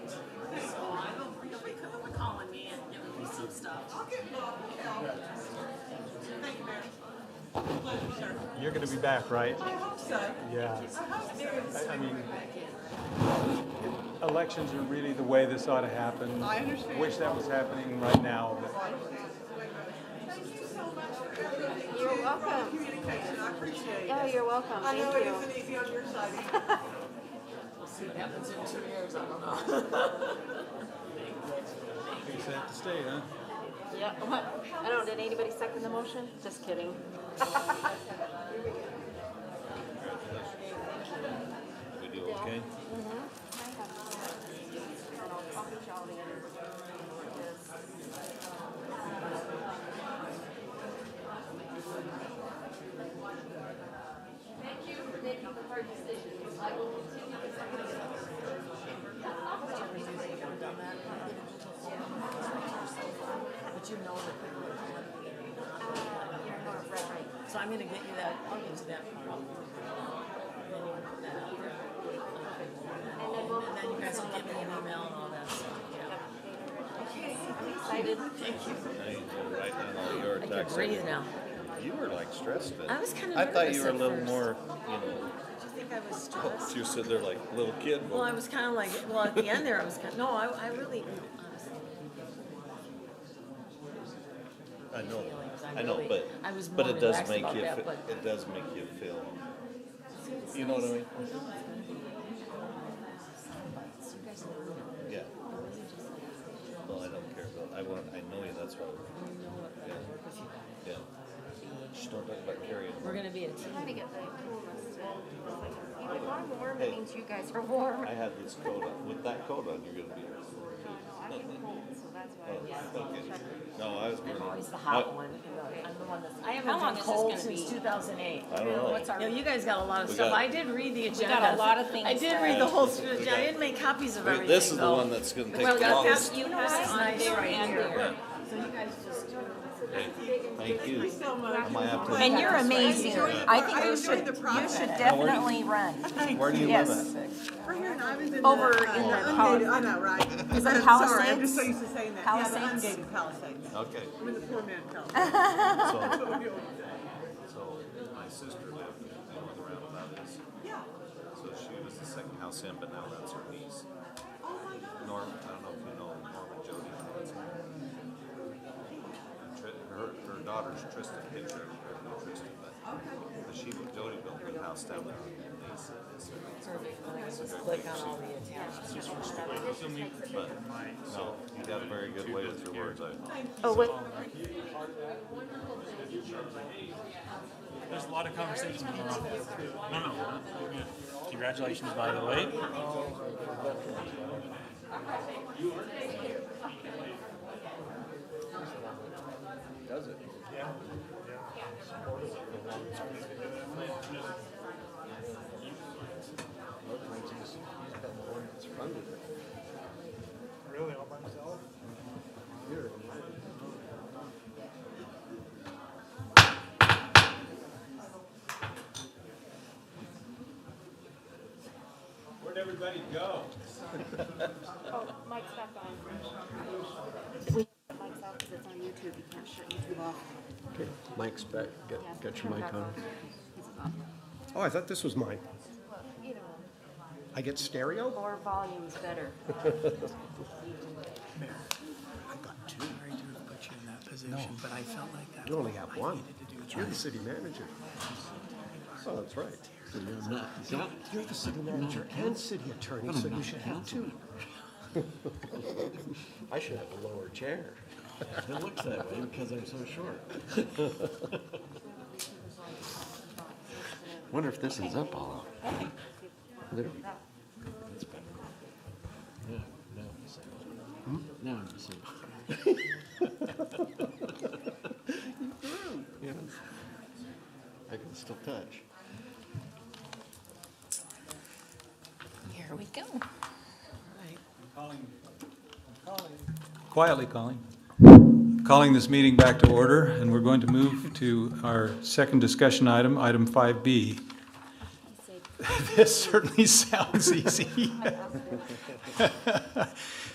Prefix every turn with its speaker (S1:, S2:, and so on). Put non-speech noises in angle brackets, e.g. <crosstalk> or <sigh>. S1: I'll get Bob to help. Thank you, Mayor. Pleasure, sir.
S2: You're going to be back, right?
S1: I hope so.
S2: Yeah.
S1: I hope
S2: I,
S1: so.
S2: I mean, elections are really the way this ought to happen.
S1: I understand.
S2: Wish that was happening right now, but
S1: Thank you so much for everything. you
S3: You're
S1: do for
S3: welcome.
S1: Communication, I appreciate
S3: Oh,
S1: it.
S3: you're welcome.
S1: I know
S3: Thank
S1: it
S3: you.
S1: isn't easy on your side.
S4: See what happens in two years, I don't know.
S2: you just have to stay, huh?
S3: Yeah, what? I don't, did anybody second the motion? Just kidding. <laughs>
S5: We do okay?
S3: Mm-hmm.
S6: Thank you for making the hard decisions. I will continue to second
S4: But you know that they would have. So I'm gonna get you that, I'll get you that um, problem.
S3: And then we'll.
S4: uh, And then you guys will give me an email and all that stuff, yeah.
S3: Okay, excited.
S4: Thank you.
S5: Now you can write down all your
S4: I can
S5: attacks.
S4: breathe now.
S5: You were like stressed then.
S4: I was kinda
S5: I thought you
S4: nervous
S5: were a
S4: at
S5: little
S4: first.
S5: more, you know,
S4: Do you think I was stressed?
S5: you said they're like little kid.
S4: Well, I was kinda like, well, at the end there, I was kinda, no, I, I really, honestly.
S5: I know,
S4: feelings. I
S5: I know,
S4: really-
S5: but,
S4: I was
S5: but
S4: more
S5: it does
S4: relaxed
S5: make
S4: about
S5: you,
S4: that,
S5: fe-
S4: but-
S5: it does make you feel, you know what I mean? Yeah. Well, I don't care about, I want, I know you, that's why. Yeah. Yeah. Shh, don't talk about carrying.
S4: We're gonna be a team.
S3: Trying to get the coolest. If I'm warm,
S5: Hey.
S3: it means you guys are warm.
S5: I had this coat on, with that coat on, you're gonna be.
S3: I get cold, so that's why I'm just
S5: Oh, okay.
S3: checking.
S5: No, I was.
S4: I'm
S5: gonna-
S4: always the
S5: I-
S4: hot one. I'm the one that's. I
S7: How long is
S4: haven't been
S7: this
S4: cold
S7: gonna
S4: since
S7: be?
S4: two thousand eight.
S5: I don't know.
S7: What's our-
S4: You know, you guys got a lot of
S5: Oh. We
S4: stuff.
S5: got-
S4: I did read the agenda.
S7: got a lot of things
S4: I did
S7: there.
S4: read the whole agenda.
S5: got-
S4: I didn't make copies of everything.
S5: This is the
S4: though.
S5: one that's gonna take
S7: Well,
S5: the
S7: you
S5: longest.
S7: have, you
S4: This
S7: have
S4: is
S7: it on
S4: nice
S7: there
S4: right
S7: and
S4: here.
S7: there.
S4: So you guys just do.
S5: Thank you.
S1: So much.
S5: I might have to-
S7: And you're amazing. I think
S1: I
S7: you
S1: enjoyed
S7: should,
S1: the
S7: you
S1: process.
S7: should definitely run.
S5: Where do you live
S7: Yes.
S5: at?
S1: Right here in Ivan's.
S7: Over
S1: the, uh,
S7: in the
S1: ungated-
S7: Pali-
S1: I know, right?
S7: Is that
S1: I'm Sorry, I'm just so used to saying that. Yeah, the
S7: Palisades?
S1: ungated Palisades.
S5: Okay.
S1: I'm in the poor man Palisades.
S5: So, so my sister lived, you know where the roundabout is?
S1: Yeah.
S5: So she was the second house in, but now that's her niece.
S1: Oh, my God.
S5: Norm, I don't know if you know Norman Jody. Tri- Her, her daughter's Tristan Hitcher, or no Tristan, but, but she, Jody built her house down there on Nice.
S4: Perfect. Well, I can just click on all the attachments.
S5: But, no, you got a very good way with your words, I.
S3: Oh, what,
S8: There's a lot of conversations going on. No, no, no. You're good. Congratulations, by the way.
S5: Does it?
S2: Where'd everybody go?
S3: oh, mic's back on. We have the mics off because it's on YouTube. You can't shut YouTube off.
S9: Okay, Mike's back.
S3: Yeah,
S9: Got, got
S3: turn
S9: your
S3: it
S9: mic
S3: back
S9: on.
S3: off. This is off.
S9: Oh, I thought this was mine.
S3: Well, you know,
S9: I get stereo?
S3: more volume is better.
S10: I got two. Sorry to have put you in that position, but I felt like that.
S9: You only have
S10: I
S9: one.
S10: needed to do
S9: You're
S10: that.
S9: the city manager. Oh, that's right. You're- You're the city manager and city attorney, so you should have two. <laughs> I should have a lower chair.
S10: It looks that way because I'm so short.
S9: Wonder if this is up all up. There we go.
S10: That's better. Yeah, now I'm the same. Now I'm the same.
S9: Yeah. I can still touch.
S7: Here we go.
S2: Quietly calling. Calling this meeting back to order, and we're going to move to our second discussion item, item 5B. This certainly sounds easy.